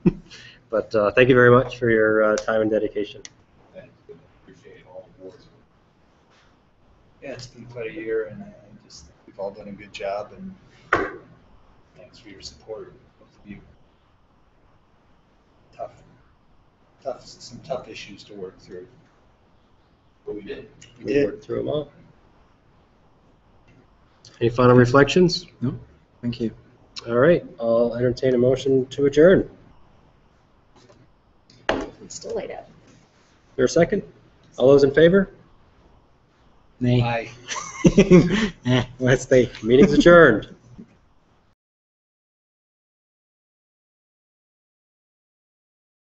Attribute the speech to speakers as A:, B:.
A: But uh, thank you very much for your uh, time and dedication.
B: Thanks, and appreciate all the boards.
C: Yeah, it's been quite a year, and I I just think we've all done a good job, and thanks for your support, both of you. Tough, tough, some tough issues to work through.
B: But we did.
C: We did.
A: Through them all. Any final reflections?
D: Thank you.
A: All right, I'll entertain a motion to adjourn.
E: It's still light up.
A: There a second? All those in favor?
D: Nay.
C: Bye.
D: Eh.
A: Let's think. Meeting's adjourned.